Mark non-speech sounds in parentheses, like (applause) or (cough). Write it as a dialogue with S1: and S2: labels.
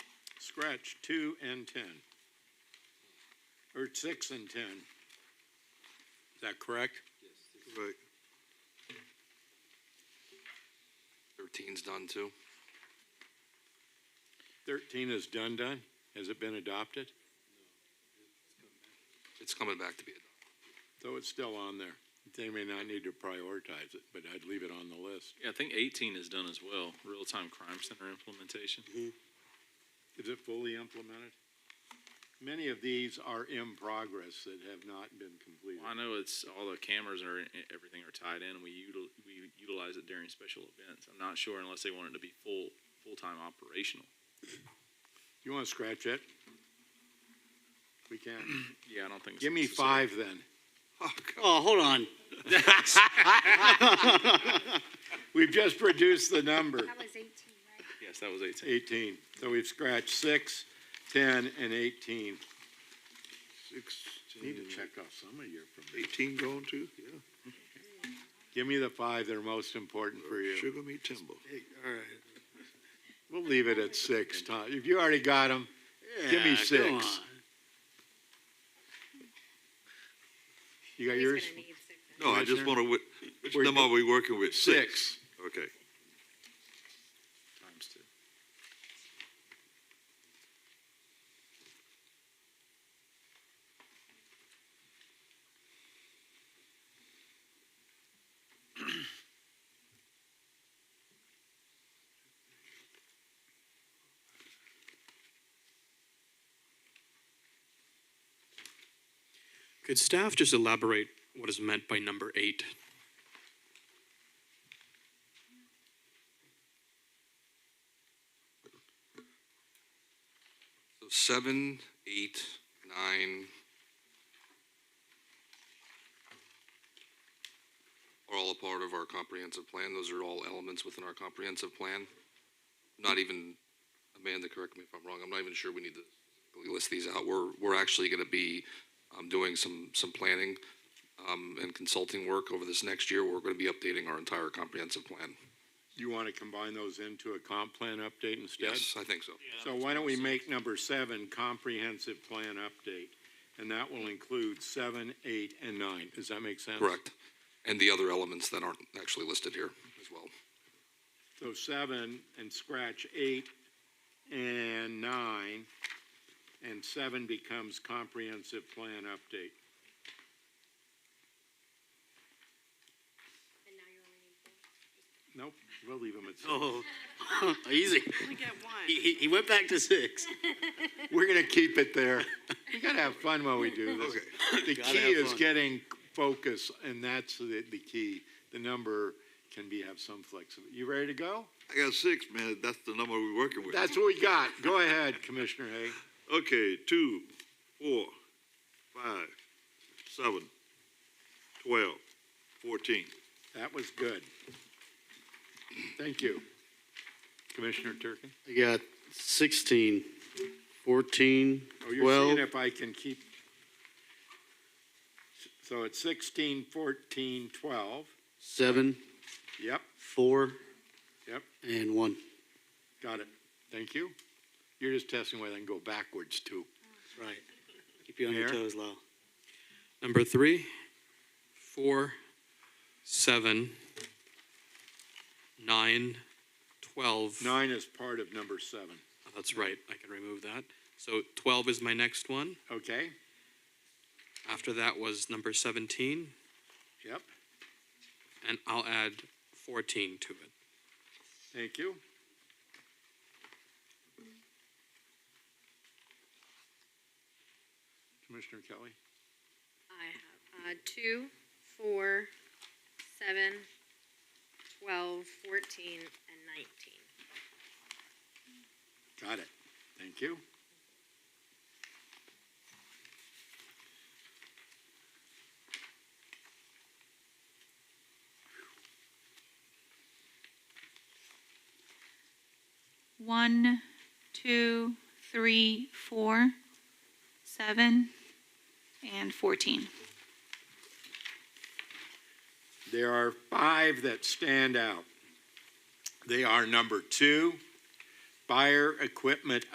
S1: scratch two and ten. Or six and ten. Is that correct?
S2: Right.
S3: Thirteen's done too.
S1: Thirteen is done done? Has it been adopted?
S3: It's coming back to be adopted.
S1: So it's still on there. They may not need to prioritize it, but I'd leave it on the list.
S4: Yeah, I think eighteen is done as well, real-time crime center implementation.
S1: Is it fully implemented? Many of these are in progress that have not been completed.
S4: I know it's, all the cameras are, e, everything are tied in, and we util, we utilize it during special events. I'm not sure unless they want it to be full, full-time operational.
S1: You want to scratch it? We can.
S4: Yeah, I don't think. it's
S1: Give me
S4: necessary.
S1: five then.
S5: Oh, hold on.
S1: We've just reduced the number.
S6: That was eighteen, right?
S4: Yes, that was eighteen.
S1: 18. So we've scratched 6, 10, and 18. Need to check off some of your from these.
S2: Eighteen going to, yeah.
S1: Give me the five that are most important for you.
S2: Sugar meat timber.
S5: All right.
S1: We'll leave it at 6, Tom. If you already got them, give me
S5: Yeah,
S1: 6.
S5: go on.
S1: You got
S6: He's
S1: yours?
S6: gonna need six.
S2: No, I just
S1: Commissioner?
S2: wanna, which, which
S1: Where you
S2: number
S1: go-
S2: are we working with?
S1: 6.
S2: Okay.
S4: Times two.
S7: Could staff just elaborate what is meant by number eight?
S3: So seven, eight, nine. Are all a part of our comprehensive plan. Those are all elements within our comprehensive plan. Not even, Amanda, correct me if I'm wrong, I'm not even sure we need to really list these out. We're, we're actually gonna be, um, doing some, some planning, um, and consulting work over this next year. We're gonna be updating our entire comprehensive plan.
S1: You want to combine those into a comp plan update instead?
S3: Yes, I think so.
S1: So why don't we make number 7 comprehensive plan update? And that will include 7, 8, and 9. Does that make sense?
S3: Correct. And the other elements that aren't actually listed here as well.
S1: So seven and scratch eight and nine, and seven becomes comprehensive plan update.
S6: And now you only need four.
S1: Nope, we'll leave them at six.
S5: Oh, (laughs) easy.
S8: We get one.
S5: He, he- he went back to six.
S1: (laughs) We're gonna keep it there. We gotta have fun while we do this. The
S5: Gotta
S1: key
S5: have
S1: is
S5: fun.
S1: getting focus, and that's the, the key. The number can be, have some flexibility. You ready to go?
S2: I got six, man. That's the number we're working with.
S1: That's what we got. Go ahead, Commissioner Hay.
S2: Okay, two, four, five, seven, twelve, fourteen.
S1: That was good. Thank you. Commissioner Turkey?
S5: I got 16, 14,
S1: Oh, you're
S5: 12.
S1: seeing if I can keep. So it's 16, 14, 12.
S5: seven,
S1: Yep,
S5: four.
S1: Yep.
S5: And one.
S1: got it. Thank you. You're just testing whether I can go backwards too.
S5: Right. Keep you on your
S1: Mayor?
S5: toes, Lyle.
S7: Number three, four, seven, nine, twelve.
S1: Nine is part of number seven.
S7: Oh, That's right, I can remove that. So twelve is my next one.
S1: Okay,
S7: After that was number seventeen,
S1: yep,
S7: and I'll add fourteen to it.
S1: thank you. Commissioner Kelly?
S6: I have, uh, two, four, seven, twelve, fourteen, and nineteen.
S1: Got it. Thank you.
S8: One, two, three, four, seven, and fourteen.
S1: There are five that stand out. They are number two, fire equipment